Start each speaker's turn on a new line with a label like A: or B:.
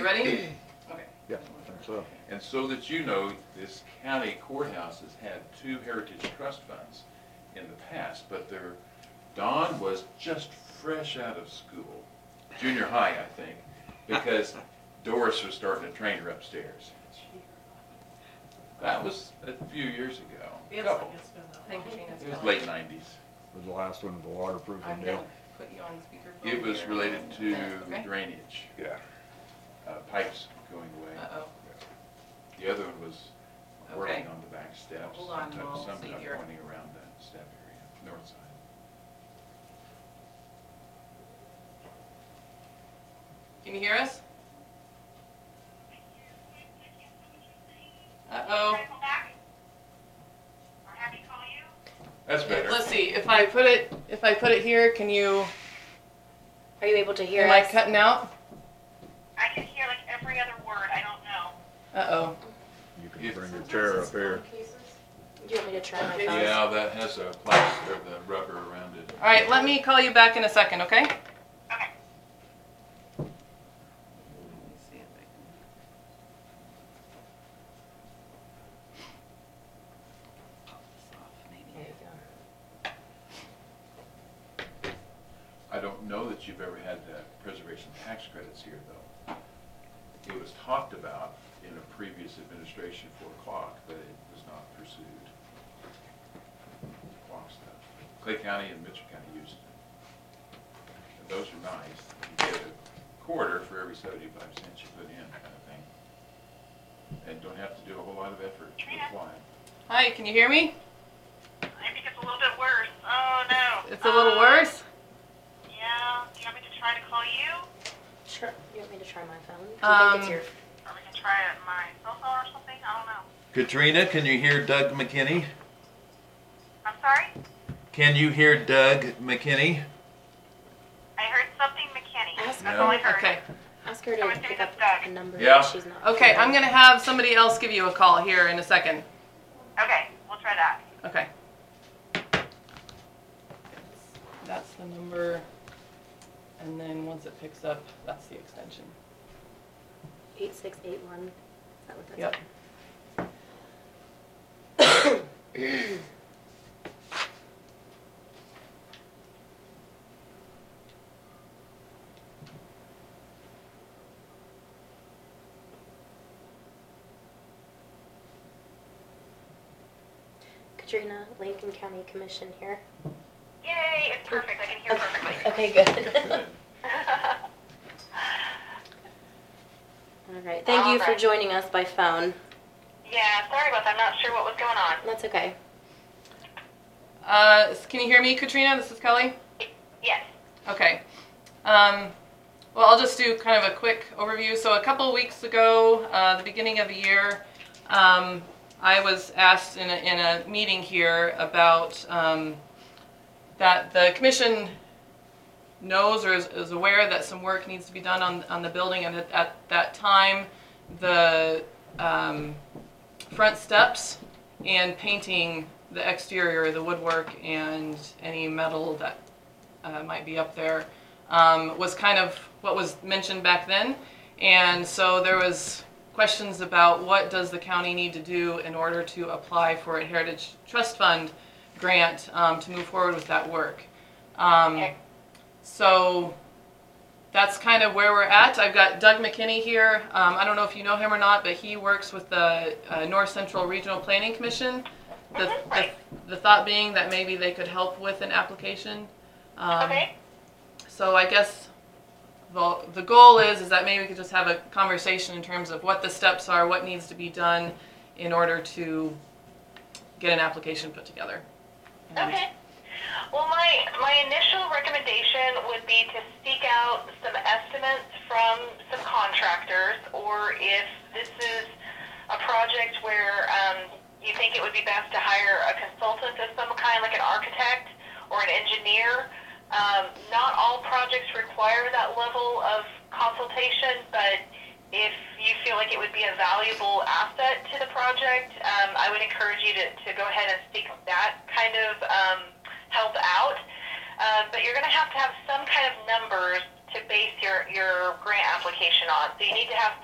A: Ready? Okay.
B: Yeah, I think so.
C: And so that you know, this county courthouse has had two heritage trust funds in the past, but their, Don was just fresh out of school, junior high, I think, because Doris was starting to train her upstairs. That was a few years ago,
D: It's,
C: couple,
D: it's been that
A: Thank
D: long.
A: you, Gina.
C: it was late nineties.
B: It was the last one, the waterproofing
A: I'm gonna
B: deal.
A: put you on speakerphone.
C: It was
A: here.
C: related to
A: Oh, Okay.
C: drainage,
B: Yeah.
C: uh, pipes going away.
A: Uh-oh,
C: The other one was
A: Okay.
C: working on the back steps.
A: Hold on,
C: sometimes-
A: we'll see
C: Sometimes
A: here.
C: pointing around the step area, north side.
A: can you hear us? Uh-oh.
C: That's better.
A: Let's see, if I put it, if I put it here, can you,
E: Are you able to hear
A: am I
E: us?
A: cutting out?
F: I can hear like every other word. I don't know.
A: Uh-oh.
B: You can
C: If-
B: bring your chair up here.
E: Do you want me to try my phone?
C: Yeah, that has a plaster of the rubber around it.
A: All right, let me call you back in a second, okay? Let me
F: Okay.
A: see if I can- Pop this off,
E: There
A: maybe.
E: you go.
C: I don't know that you've ever had uh, preservation tax credits here, though. It was talked about in a previous administration for clock, but it was not pursued. Clock stuff. Clay County and Mitchell County used it. And those are nice. You get a quarter for every seventy-five cents you put in, kind of thing. And don't have to do a whole lot of effort to apply.
A: Hi, can you hear me?
F: I think it's a little bit worse. Oh no.
A: It's a little
F: Um,
A: worse?
F: Yeah. Do you want me to try to call you?
E: Sure. You want me to try my phone?
A: Um,
E: Do you think it's
F: Or we can try it on my cell phone or something? I don't know.
G: Katrina, can you hear Doug McKinney?
F: I'm sorry?
G: Can you hear Doug McKinney?
F: I heard something McKinney.
E: Ask
F: That's
C: No.
F: all I heard.
A: Okay,
E: your, ask her
F: I was
E: to
F: doing
E: pick up
F: the duck.
E: a number
C: Yeah.
E: that she's not.
A: okay, I'm gonna have somebody else give you a call here in a second.
F: Okay, we'll try that.
A: Okay. That's the number, and then once it picks up, that's the extension.
E: Eight six eight one. Is that what that's?
A: Yep.
E: Katrina, Lincoln County Commission here.
F: Yay, it's perfect. I can hear perfectly.
E: Okay, good.
C: Good.
E: All right. Thank you for
F: Alright.
E: joining us by phone.
F: yeah, sorry about that. I'm not sure what was going on.
E: That's okay.
A: Uh, s- can you hear me, Katrina? This is Kelly.
F: Yes.
A: Okay. Um, well, I'll just do kind of a quick overview. So a couple weeks ago, uh, the beginning of the year, um, I was asked in a, in a meeting here about um, that the commission knows or is, is aware that some work needs to be done on, on the building, and at, at that time, the um, front steps and painting the exterior, the woodwork, and any metal that uh, might be up there, um, was kind of what was mentioned back then. And so there was questions about what does the county need to do in order to apply for a Heritage Trust Fund grant um, to move forward with that work. Um,
F: Okay.
A: so that's kind of where we're at. I've got Doug McKinney here. Um, I don't know if you know him or not, but he works with the uh, North Central Regional Planning Commission. The,
F: Mhm,
A: the,
F: right.
A: the thought being that maybe they could help with an application. Um,
F: okay.
A: so I guess the, the goal is, is that maybe we could just have a conversation in terms of what the steps are, what needs to be done in order to get an application put together. And-
F: Okay. Well, my, my initial recommendation would be to seek out some estimates from some contractors, or if this is a project where um, you think it would be best to hire a consultant of some kind, like an architect or an engineer. Um, not all projects require that level of consultation, but if you feel like it would be a valuable asset to the project, um, I would encourage you to, to go ahead and seek that kind of um, help out. Um, but you're going to have to have some kind of numbers to base your, your grant application on. So you need to have